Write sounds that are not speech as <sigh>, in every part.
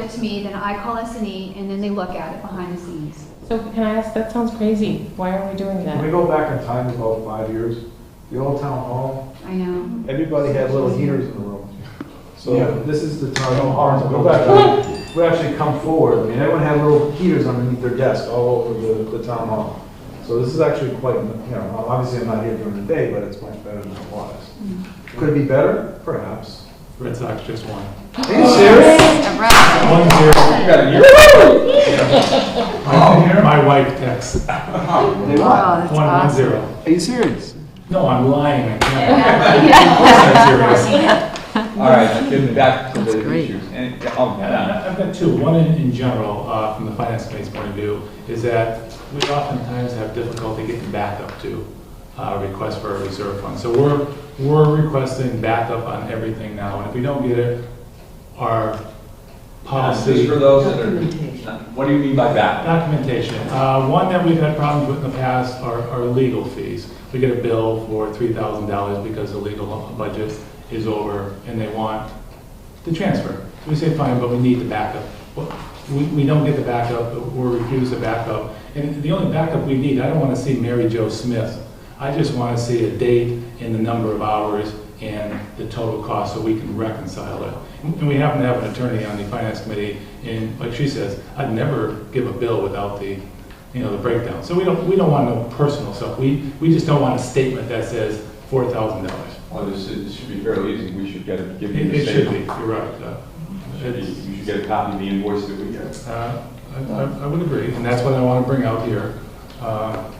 it to me, then I call S and E, and then they look at it behind the scenes. So can I ask, that sounds crazy. Why are we doing When that? we go back in time about five years, the old town hall, I know. everybody had little heaters in the room. Yeah. So this is the time, no harm, to go back, we actually come forward, I mean, everyone had little heaters underneath their desk all over the, the town hall. So this is actually quite, you know, obviously I'm not here during the day, but it's much better than it was. Could it be better? Perhaps. Red Sox just won. Are you serious? <laughs> One zero. My my wife texts, They won. one, one zero. Are you serious? No, I'm lying, I can't. Yeah. I'm serious. All right, get back to the issues. And, oh, And man. I- I've got two. One in, in general, uh, from the finance committee's point of view, is that we oftentimes have difficulty getting backup to, uh, requests for a reserve fund. So we're, we're requesting backup on everything now, and if we don't get it, our policy. Just for those that are, what do you mean by that? Documentation. Uh, One that we've had problems with in the past are are legal fees. We get a bill for $3,000 because the legal budget is over and they want the transfer. So we say, fine, but we need the backup. Well, We we don't get the backup, or refuse the backup. And the only backup we need, I don't want to see Mary Jo Smith. I just want to see a date and the number of hours and the total cost so we can reconcile it. And we happen to have an attorney on the finance committee, and like she says, I'd never give a bill without the, you know, the breakdown. So we don't, we don't want no personal stuff. We, we just don't want a statement that says four thousand dollars. Well, this is, this should be fairly easy, we should get, a- give you It the it should be, statement. you're right. uh, Should be- You should get a copy of the invoice that we get. Uh, I I- I would agree, and that's what I want to bring out here. Uh,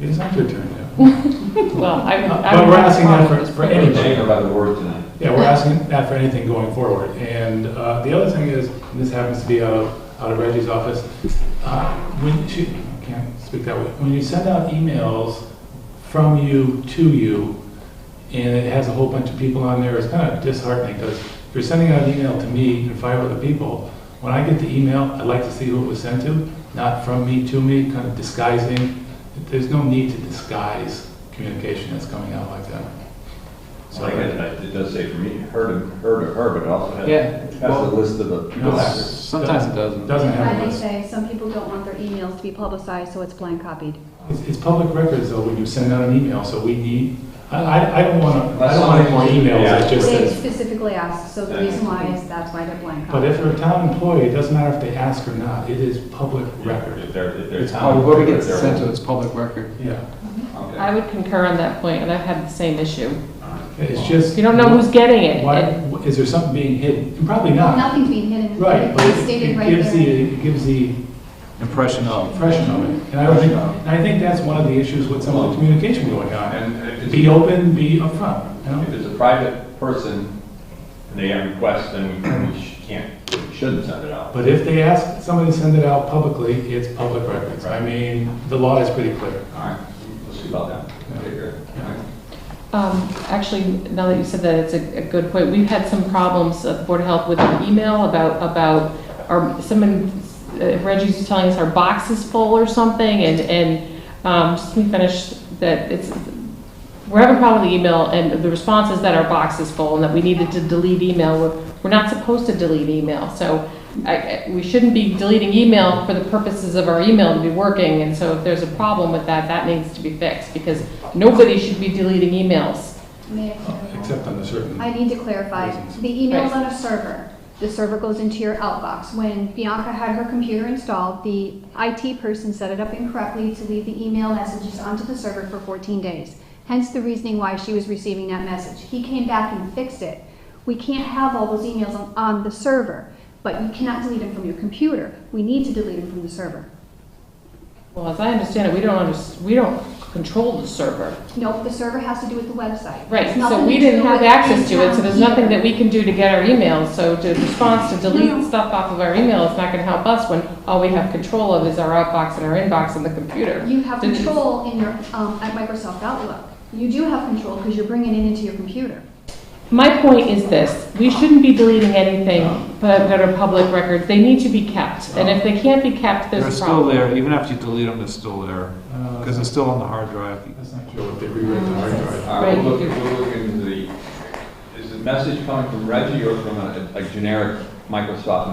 It is not your turn yet. Well, I, I. But we're asking that for- for I'm anybody. shaken up by the word tonight. Yeah, we're asking that for anything going forward. And uh, the other thing is, and this happens to be out of, out of Reggie's office, uh, when, she, I can't speak that way, when you send out emails from you to you, and it has a whole bunch of people on there, it's kind of disheartening, because if you're sending out an email to me and five other people, when I get the email, I'd like to see who it was sent to, not from me to me, kind of disguising. There's no need to disguise communication that's coming out like that. So I get it, I- it does say for me, heard of, heard of her, but it also has, Yeah. has a list of the people. that- Sometimes it doesn't. Doesn't Why have a they list. say some people don't want their emails to be publicized, so it's blank copied. It's, it's public records though, when you send out an email, so we need, I, I, I don't want to, I don't want any more emails that just They says, specifically asked, so the reason why is that's why they're blank but if copied. they're a town employee, it doesn't matter if they ask or not, it is public record. If they're, if they're. It's town- Whoever gets they're- sent to it's public record. Yeah, Okay. I would concur on that point, and I've had the same issue. it's just. You don't know who's getting it. Why, and- is there something being hidden? Probably not. Nothing's being hidden. Right, but It's it stated it right gives the, there. it gives the Impression of. impression of it. And I don't think, and I think that's one of the issues with some of the communication going on. And if it's- Be open, be upfront, you know? If it's a private person and they have requests, then we sh- can't, we shouldn't send it out. But if they ask somebody to send it out publicly, it's public records. I mean, the law is pretty clear. All right, we'll see about that. Okay, great. All right. Um, Actually, now that you said that, it's a a good point. We've had some problems at the Board of Health with an email about, about, our someone, uh, Reggie's was telling us our box is full or something, and, and um, just let me finish that it's, we're having a problem with the email, and the response is that our box is full and that we needed to delete email. We're- We're not supposed to delete email, so I- I- we shouldn't be deleting email for the purposes of our email to be working. And so if there's a problem with that, that needs to be fixed, because nobody should be deleting emails. May I clarify? Except on the certain. uh, I need to clarify, the email's on a server. The server goes into your outbox. When Bianca had her computer installed, the IT person set it up incorrectly to leave the email messages onto the server for 14 days. Hence the reasoning why she was receiving that message. He came back and fixed it. We can't have all those emails on, on the server, but you cannot delete them from your computer. We need to delete them from the server. Well, as I understand it, we don't under, we don't control the server. Nope, the server has to do with the website. Right, It's nothing so we to didn't do have with access to it, so there's nothing in-town that we can do to get our emails. So to response to delete stuff off of our email, it's not gonna help us when all we have control of is our outbox and our inbox on the computer. You have Did you- control in your, um, at Microsoft Outlook. You do have control because you're bringing it into your computer. My point is this, we shouldn't be deleting anything but that are public records. They need to be kept. And if they can't be kept, They're there's a still problem. there, even after you delete them, they're still there, Uh, because they're still on the hard drive. That's not sure what they rewrote the hard drive. All right, we'll Right. look, we'll look into the, is the message coming from Reggie or from a, a generic Microsoft